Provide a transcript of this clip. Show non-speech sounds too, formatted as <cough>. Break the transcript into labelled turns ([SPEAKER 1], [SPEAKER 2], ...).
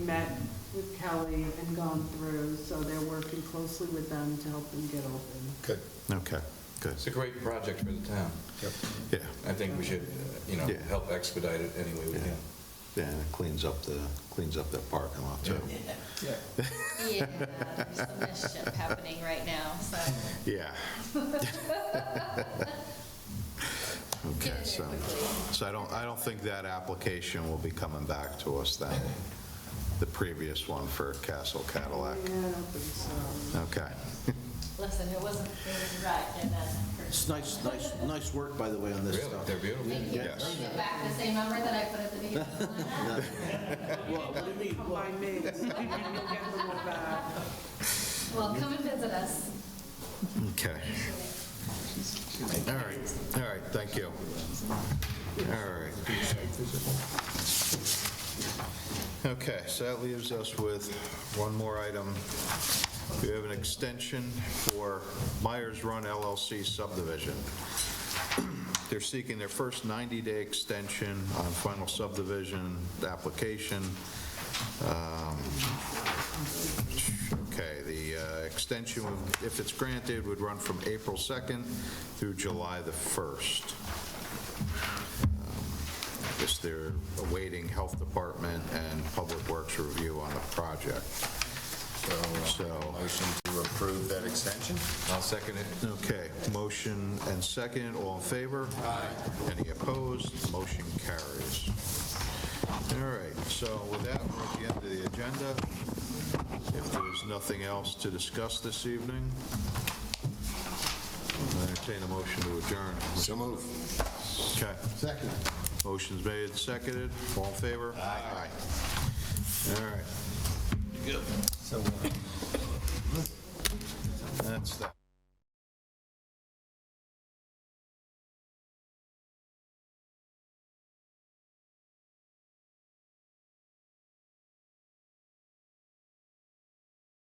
[SPEAKER 1] met with Kelly and gone through, so they're working closely with them to help them get open.
[SPEAKER 2] Good,
[SPEAKER 3] Okay, good,
[SPEAKER 4] It's a great project for the town.
[SPEAKER 3] yeah,
[SPEAKER 4] I think we should, uh, you know,
[SPEAKER 3] Yeah.
[SPEAKER 4] help expedite it any way we
[SPEAKER 3] yeah.
[SPEAKER 4] can.
[SPEAKER 3] Yeah, and it cleans up the, cleans up that parking lot too.
[SPEAKER 5] Yeah, there's some <laughs> mischief happening right now, so
[SPEAKER 3] Yeah. <laughs> Okay,
[SPEAKER 5] Get in there
[SPEAKER 3] so,
[SPEAKER 5] quickly.
[SPEAKER 3] so I don't, I don't think that application will be coming back to us then, the previous one for Castle Cadillac.
[SPEAKER 1] Yeah, I don't think so.
[SPEAKER 3] Okay,
[SPEAKER 5] listen, it wasn't, it was right and uh, then.
[SPEAKER 6] It's nice, nice, nice work, by the way, on this
[SPEAKER 4] Really,
[SPEAKER 6] stuff.
[SPEAKER 4] they're beautiful.
[SPEAKER 5] Thank you.
[SPEAKER 3] Yes.
[SPEAKER 5] Can you get back the same number that I put at the beginning? of the
[SPEAKER 3] <laughs>
[SPEAKER 5] lineup?
[SPEAKER 6] Well, what do you mean?
[SPEAKER 1] Come by me, <laughs> you can get them all back.
[SPEAKER 5] Well, come and visit us.
[SPEAKER 3] okay. All right, all right, thank you. All right. Okay, so that leaves us with one more item. We have an extension for Myers Run LLC subdivision. They're seeking their first 90-day extension on final subdivision application. Um, Okay, the uh, extension, if it's granted, would run from April 2nd through July the 1st. I guess they're awaiting Health Department and Public Works review on the project.
[SPEAKER 2] so
[SPEAKER 3] So-
[SPEAKER 2] uh, motion to approve that extension?
[SPEAKER 4] I'll second it.
[SPEAKER 3] Okay, motion and second, all in favor? Aye. Any opposed? Motion carries. All right, so with that, we're at the end of the agenda. If there's nothing else to discuss this evening, I entertain a motion to adjourn.
[SPEAKER 2] So move.
[SPEAKER 3] Okay.
[SPEAKER 2] Second.
[SPEAKER 3] Motion's made, seconded, all in favor? Aye. All right. Good. That's that.